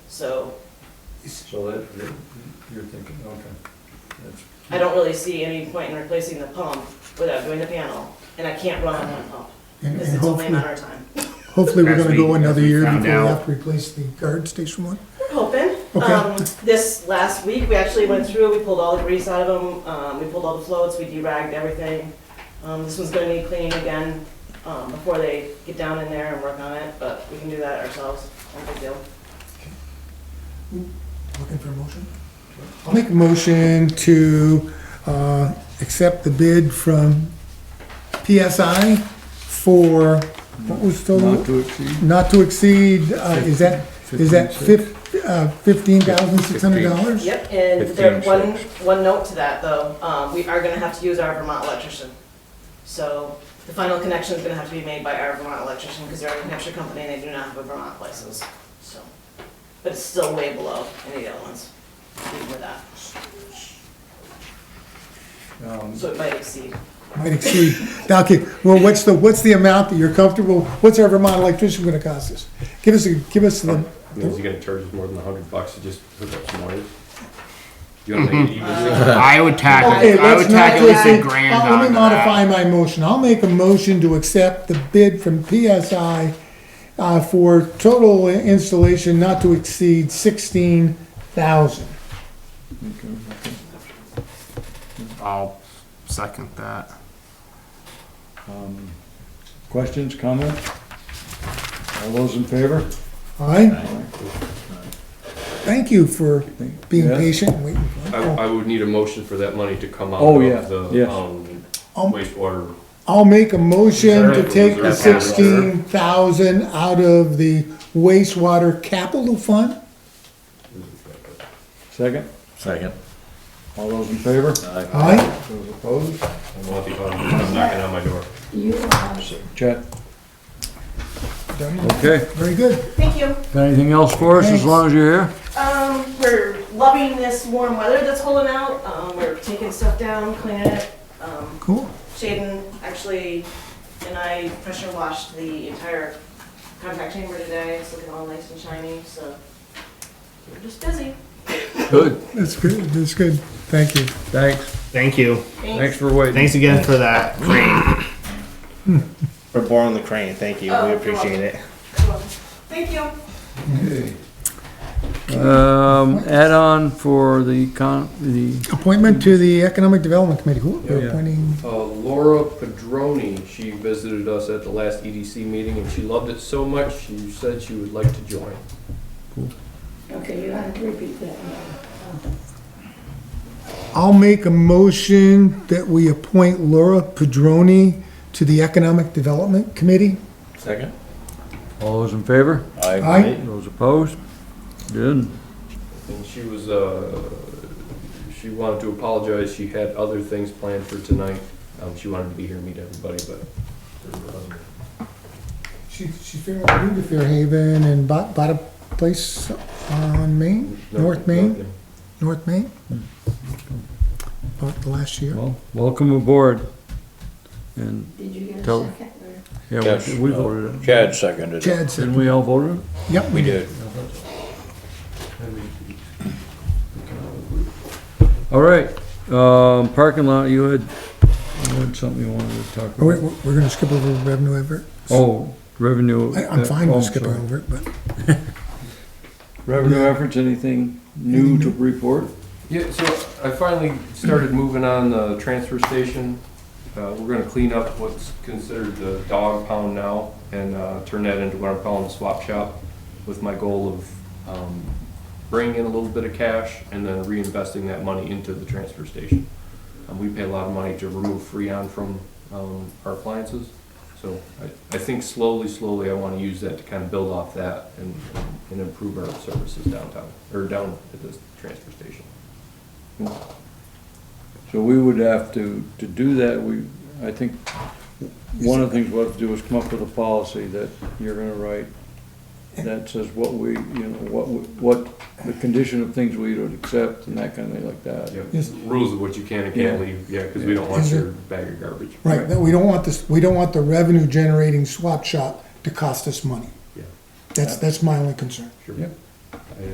So So that, you're- you're thinking, okay. That's- I don't really see any point in replacing the pump without doing the panel, and I can't run on one pump, And because and it's only a hopefully, matter of time. hopefully we're As gonna go we- as another we year before found we have out. to replace the guard station one. We're hoping. Okay. Um, This last week, we actually went through, we pulled all the grease out of them, um, we pulled all the floats, we deragged everything. Um, this one's gonna need cleaning again, um, before they get down in there and work on it, but we can do that ourselves, no big deal. Looking for a motion? I'll make a motion to, uh, accept the bid from PSI for, what Not was the, to exceed? not to exceed, uh, is that, is that fif, uh, fifteen thousand six hundred dollars? Yep, and there, Fifteen one, one note to that though, um, we are gonna have to use our Vermont electrician. So the final connection is gonna have to be made by our Vermont electrician, because they're a New Hampshire company and they do not have a Vermont license, so. But it's still way below any of the other ones, even with that, Um, so it might exceed. Might exceed, now, okay, well, what's the, what's the amount that you're comfortable, what's our Vermont electrician gonna cost us? Give us, a give us the, I mean, is he gonna charge us more than a hundred bucks to just hook up some wires? You don't Mm-hmm. think, you really think- I would tack, Okay, I would let's not tack at least just, a say- grand I'll- let me onto modify that. my motion. I'll make a motion to accept the bid from PSI uh, for total installation not to exceed sixteen thousand. I'll second that. um, Questions, comments? All those in favor? All right? Thank you for being Yes. patient and waiting. for I, it. I would need a motion for that money to come out Oh, yeah, of the, yes. um, Um, wastewater. I'll make a motion to Reserve- take the reserve account. sixteen thousand out of the wastewater capital fund. Second? Second. All those in favor? All right? Those opposed? I'm not the- I'm knocking on my door. Chat. Done. Okay. Very good. Thank you. Got Anything else for us, as long as you're here? Um, we're loving this warm weather that's holding out, um, we're taking stuff down, cleaning it, um, Cool. Shaden actually and I pressure washed the entire contact chamber today. It's looking all nice and shiny, so we're just busy. Good. That's good. That's good. Thank you. Thanks. Thank you. Thanks for waiting. Thanks again for that crane. For borrowing the crane, thank you. Oh, we you're appreciate it. Thank you. Um, add-on for the con, the, Appointment to the Economic Development Committee. Who- We're Yeah. appointing, Uh, Laura Padroni, she visited us at the last EDC meeting and she loved it so much, she said she would like to join. Okay, you have to repeat that. I'll make a motion that we appoint Laura Padroni to the Economic Development Committee. Second. All those in favor? Aye. Those opposed? Good. And she was, uh, she wanted to apologize, she had other things planned for tonight. Um, she wanted to be here and meet everybody, but um, her husband She, she fair, moved to Fairhaven and bought, bought a place on Main, North Main, North Main. Bought last year. Well, welcome aboard. And, Did you get a Tell- second? or- yeah, Yes. we- we voted it. Chad seconded it. Chad Didn't said, we all vote it? yep, We did. All right, um, parking lot, you had, you had something you wanted to talk Oh, wait, about. we're, we're gonna skip over revenue advert. Oh, revenue. I, I'm fine oh, with skipping sorry. over it, but Revenue efforts, anything new to report? Yeah, so I finally started moving on the transfer station. Uh, we're gonna clean up what's considered the dog pound now and, uh, turn that into what I'm calling a swap shop with my goal of, um, bringing in a little bit of cash and then reinvesting that money into the transfer station. Um, we pay a lot of money to remove Freon from, um, our appliances. So I, I think slowly, slowly, I wanna use that to kind of build off that and, and improve our services downtown, or down at the transfer station. So we would have to, to do that, we, I think, one of the things we'll have to do is come up with a policy that you're gonna write that says what we, you know, what, we- what, the condition of things we would accept and that kind of thing like that. Yeah, Yes. rules of what you can and Yeah. can't leave, yeah, because we don't want Is it- your bag of garbage. Right, that we don't want this, we don't want the revenue generating swap shop to cost us money. Yeah. That's, that's my only concern. Sure. Yep.